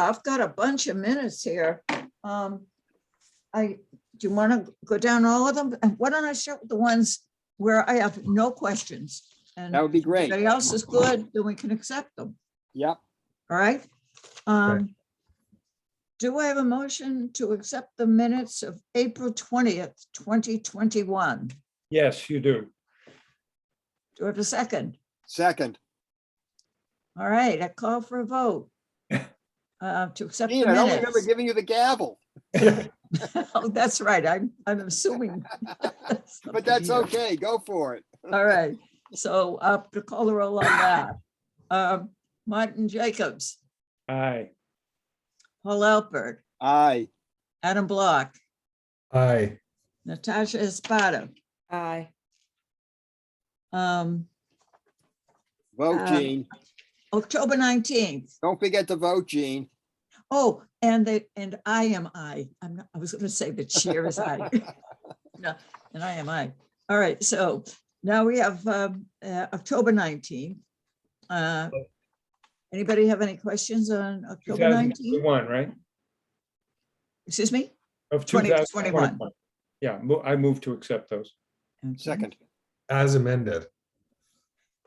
I've got a bunch of minutes here. Um, I, do you want to go down all of them? And Why don't I show the ones where I have no questions? And That if would be great. anybody else is good, then we can accept them, Yep. all right? Um, do I have a motion to accept the minutes of April twentieth, twenty twenty-one? Yes, you do. Do I have a second? Second. All right, I call for a vote. Uh, to accept the Ian, I don't remember minutes. giving you the gavel, Oh, that's right. I'm, I'm assuming. but that's okay. Go for it. All right. So uh, to call the roll on that. Um, Martin Jacobs, Aye. Paul Alpert, Aye. Adam Block, Aye. Natasha Espada. Aye. Um, Vote, Uh, Gene. October 19th. Don't forget to vote, Gene. Oh, and they, and I am I. I'm not, I was going to say the cheer is I. No, and I am I. All right. So now we have um, uh, October 19th. Uh, Anybody have any questions on October 19th? 2001, right? Excuse me? Of 2021. 2021. Yeah, mo- I move to accept those. Okay. Second. As amended.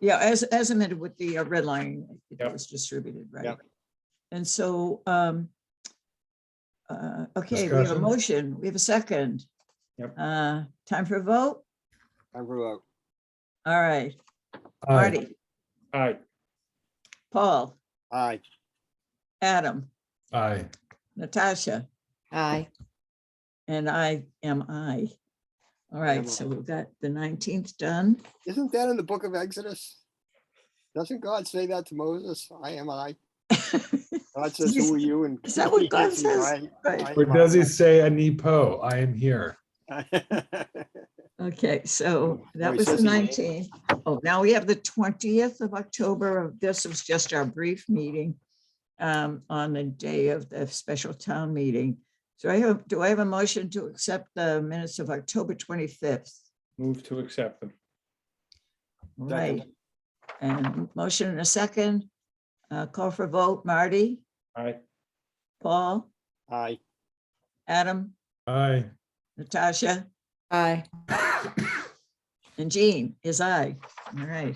Yeah, as, as amended with the uh, red line that Yep. was distributed, right? Yep. And so, um, uh, okay, we have a Discussion? motion, we have a second. Yep. Uh, time for a vote? I vote. All right, Aye. Marty, Aye. Paul, Aye. Adam, Aye. Natasha, Aye. and I am I. All right, Am so I. we've got the nineteenth done. Isn't that in the book of Exodus? Doesn't God say that to Moses? I am I. God says, who are you? And Is that what God he says? I- Right. I am Or does he I. say a nepo? I am here. Okay, so Oh, that it was the says in the- nineteenth. Oh, now we have the twentieth of October. This was just our brief meeting um, on the day of the special town meeting. So I have, do I have a motion to accept the minutes of October twenty-fifth? Move to accept them. Right, and motion and a second. Uh, Call for vote, Marty, Aye. Paul, Aye. Adam, Aye. Natasha, Aye. and Jean is I. All right.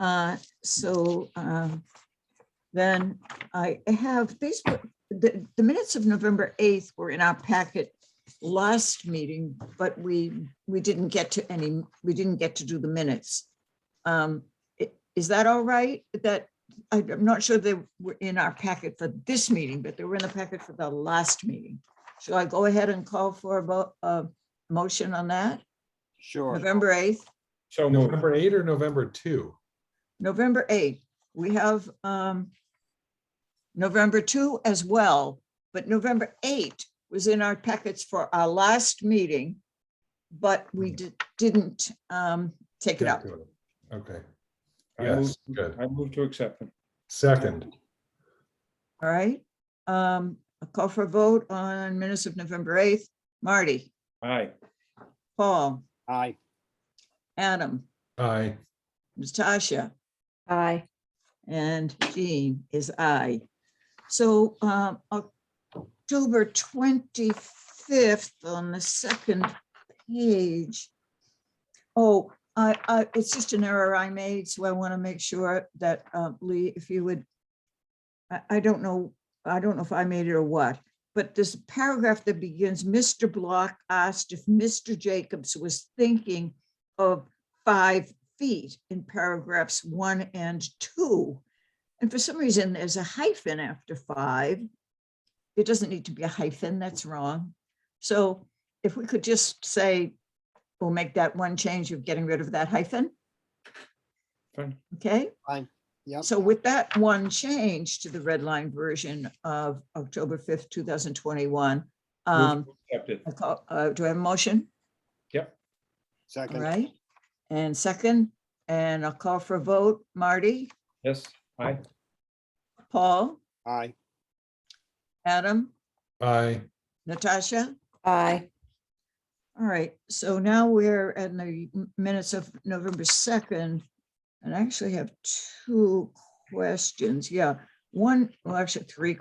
Uh, so, um, then I have, these, were- the, the minutes of November 8th were in our packet last meeting, but we, we didn't get to any, we didn't get to do the minutes. Um, i- Is that all right? That, I- I'm not sure they were in our packet for this meeting, but they were in the packet for the last meeting. Shall I go ahead and call for a, vo- a motion on that? Sure. November 8th? So moved. November eight or November two? November 8th, we have um, November 2 as well, but November 8 was in our packets for our last meeting, but we di- didn't um, take it up. Okay. I Yes, move- good. I move to accept them. Second. All right. Um, A call for a vote on minutes of November 8th. Marty, Aye. Paul, Aye. Adam, Aye. Natasha, Aye. and Jean is I. So um, October 25th on the second page. Oh, I, I, it's just an error I made, so I want to make sure that uh, Lee, if you would, I, I don't know, I don't know if I made it or what, but this paragraph that begins, Mr. Block asked if Mr. Jacobs was thinking of five feet in paragraphs one and two. And for some reason, there's a hyphen after five. It doesn't need to be a hyphen, that's wrong. So if we could just say, we'll make that one change of getting rid of that hyphen, Fine. okay? Yep. So with that one change to the red line version of October 5th, 2021, um, Move to accept it. I call- uh, do I have a motion? All Second. right, and second, and I'll call for a vote. Marty, Yes, aye. Paul, Aye. Adam, Aye. Natasha? Aye. All right, so now we're in the m- minutes of November 2nd. And I actually have two questions. Yeah, one, well, actually three